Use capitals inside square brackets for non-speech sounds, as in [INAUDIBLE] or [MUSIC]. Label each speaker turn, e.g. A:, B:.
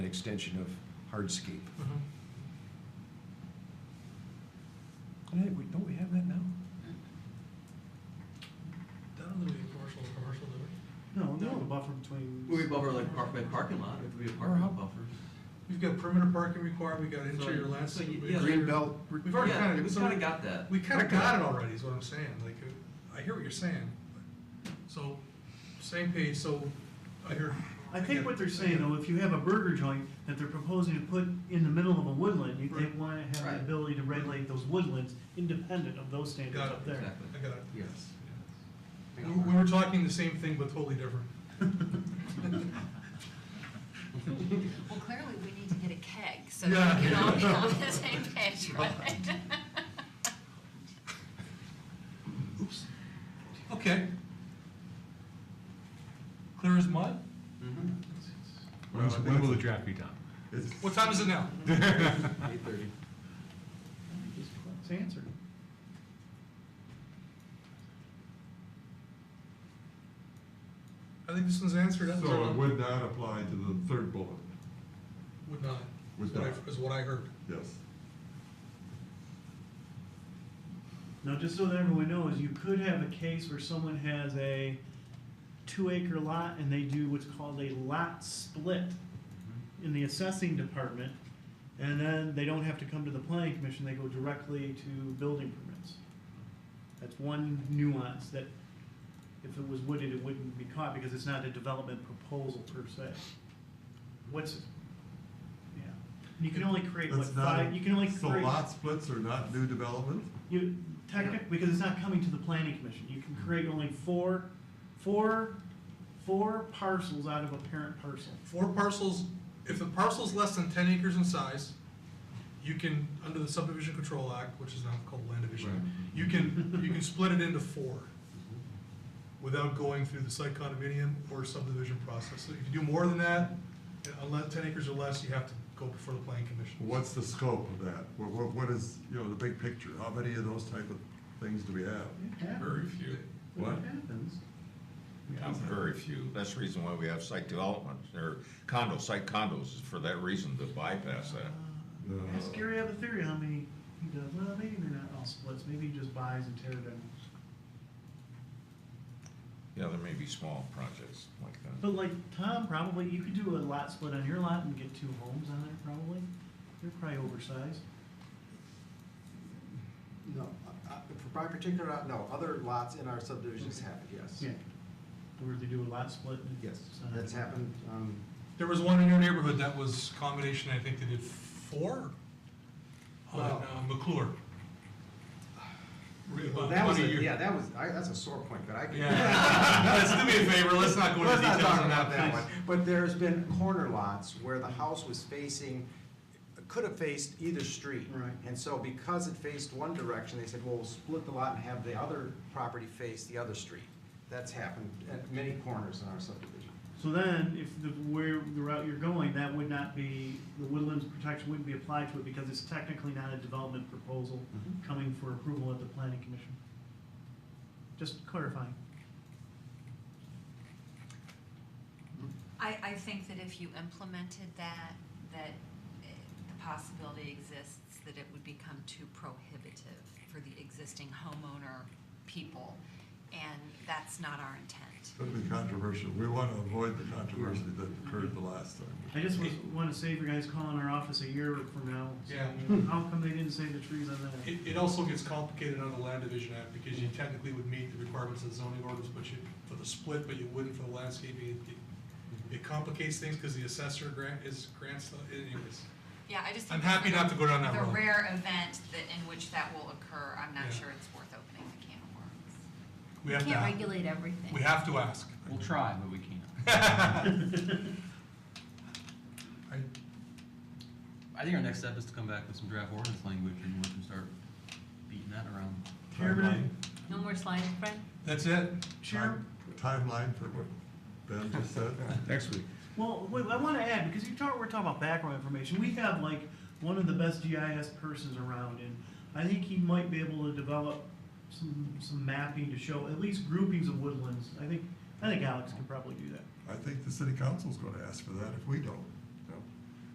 A: extension of hardscape.
B: Mm-hmm.
A: Hey, we, don't we have that now?
B: Down to the commercial, commercial, do we?
C: No,
B: No.
C: no, the buffer between.
D: Well, we buffer like park, like parking lot, it would be a parking lot buffer.
B: We've got perimeter parking required, we've got interior
D: So-
B: landscape.
D: so y-
B: we've got
D: yeah,
B: interior-
A: Green belt.
B: We've already
D: Yeah,
B: kind of.
D: we kinda got that.
B: We kind
A: I
B: of
A: got
B: got
A: it.
B: it already, is what I'm saying, like, uh, I hear what you're saying. but- So, same page, so, I hear.
C: I think what they're saying though, if you have a burger joint that they're proposing to put in the middle of a woodland, you, they
B: Right.
C: wanna have the
D: Right.
C: ability to regulate those woodlands independent of those standards
B: Got it.
C: up there.
D: Exactly.
B: I got it.
D: Yes.
B: We we were talking the same thing, but totally different.
E: Well, clearly we need to get a keg, so
B: Yeah.
E: that we can all
B: [LAUGHS]
E: be on the same page, right? [LAUGHS]
B: Okay. Clear as mud?
D: Uh-huh.
F: When's-
B: Well, I
F: When
B: think
F: will the
B: it's-
F: draft be done?
B: What time is it now?
D: Eight thirty.
C: It's answered.
B: I think this one's answered. That was our
F: So it
B: number.
F: would not apply to the third bullet,
B: Would not.
F: Would
B: is what I-
F: not.
B: Is what I heard.
F: yes.
C: Now, just so that everyone knows, you could have a case where someone has a two acre lot and they do what's called a lot split
F: Mm-hmm.
C: in the assessing department, and then they don't have to come to the planning commission, they go directly to building permits. That's one nuance that if it was wooded, it wouldn't be caught because it's not a development proposal per se. What's, yeah, you can only create what
F: That's not
C: five,
F: a-
C: you can only create.
F: So lot splits are not new development?
C: You, technic, because it's not coming to the planning commission, you can create only four, four, four parcels out of a parent parcel.
B: Four parcels, if the parcel's less than ten acres in size, you can, under the subdivision control act, which is now called land
D: Right.
B: division, you can, you can split it into four without going through the site condominium or subdivision process. So if you do more than that, unless ten acres or less, you have to go before the planning commission.
F: What's the scope of that? What, what, what is, you know, the big picture? How many of those type of things do we have?
G: Very few.
F: What?
C: happens?
G: Yeah, very few. That's the reason why we have site development, or condo, site condos, is for that reason to bypass that.
C: Uh-huh.
F: No.
C: Ask Gary, Uh, I have a theory how many he does, well, maybe they're not all splits, maybe he just buys and tear down.
G: Yeah, there may be small projects like that.
C: But like Tom, probably, you could do a lot split on your lot and get two homes on it, probably, they're probably oversized.
H: No, uh, uh, for my particular, lot, no, other lots in our subdivisions happened, yes.
C: Where they do a lot split. and
H: Yes,
C: it's not-
H: that's happened, um,
B: There was one in your neighborhood that was combination, I think they did four on
H: Wow.
B: uh, McClure. Really,
H: well,
B: about
H: that was, a-
B: 20 years.
H: yeah, that was, I, that's a sore point, but I can. [LAUGHS]
B: Yeah, let's do me a favor, let's not go into
H: Let's not
B: details
H: talk
B: on
H: about that
B: that, please.
H: one, but there's been corner lots where the house was facing, could have faced either street.
C: Right.
H: And so because it faced one direction, they said, well, we'll split the lot and have the other property face the other street. That's happened at many corners in our subdivision.
C: So then, if the, where, the route you're going, that would not be, the woodlands protection wouldn't be applied to it because it's technically not a development proposal coming for approval at the planning commission. Just clarifying.
E: I, I think that if you implemented that, that eh, the possibility exists that it would become too prohibitive for the existing homeowner people, and that's not our intent.
F: It's gonna be controversial. We wanna avoid the controversy that occurred the last time.
C: I just was, wanna save your guys calling our office a year from now. saying, How come they didn't save the trees on that?
B: It, it also gets complicated on the land division act, because you technically would meet the requirements of the zoning ordinance, but you, for the split, but you wouldn't for the landscaping. It- it- It complicates things, because the assessor grant is grants, the- anyways.
E: Yeah, I just
B: I'm
E: think.
B: happy
E: for the-
B: not to go down that
E: The
B: road.
E: rare event that, in which that will occur, I'm
B: Yeah.
E: not sure it's worth opening the can of worms.
B: We have to,
E: Can't
B: ask.
E: regulate everything.
B: we have to ask. [LAUGHS]
D: We'll try, but we can't.
B: I-
D: [LAUGHS] I think our next step is to come back with some draft ordinance language and we can start beating that around.
C: Chairman,
E: No more slides, Fred?
B: That's it?
C: Chair,
F: Timeline for what Ben just said?
A: Next week.
C: well, wait, I wanna add, because you talk, we're talking about background information, we have like one of the best GIS persons around, and I think he might be able to develop some, some mapping to show at least groupings of woodlands. I think, I think Alex can probably do that.
F: I think the city council's gonna ask for that if we don't.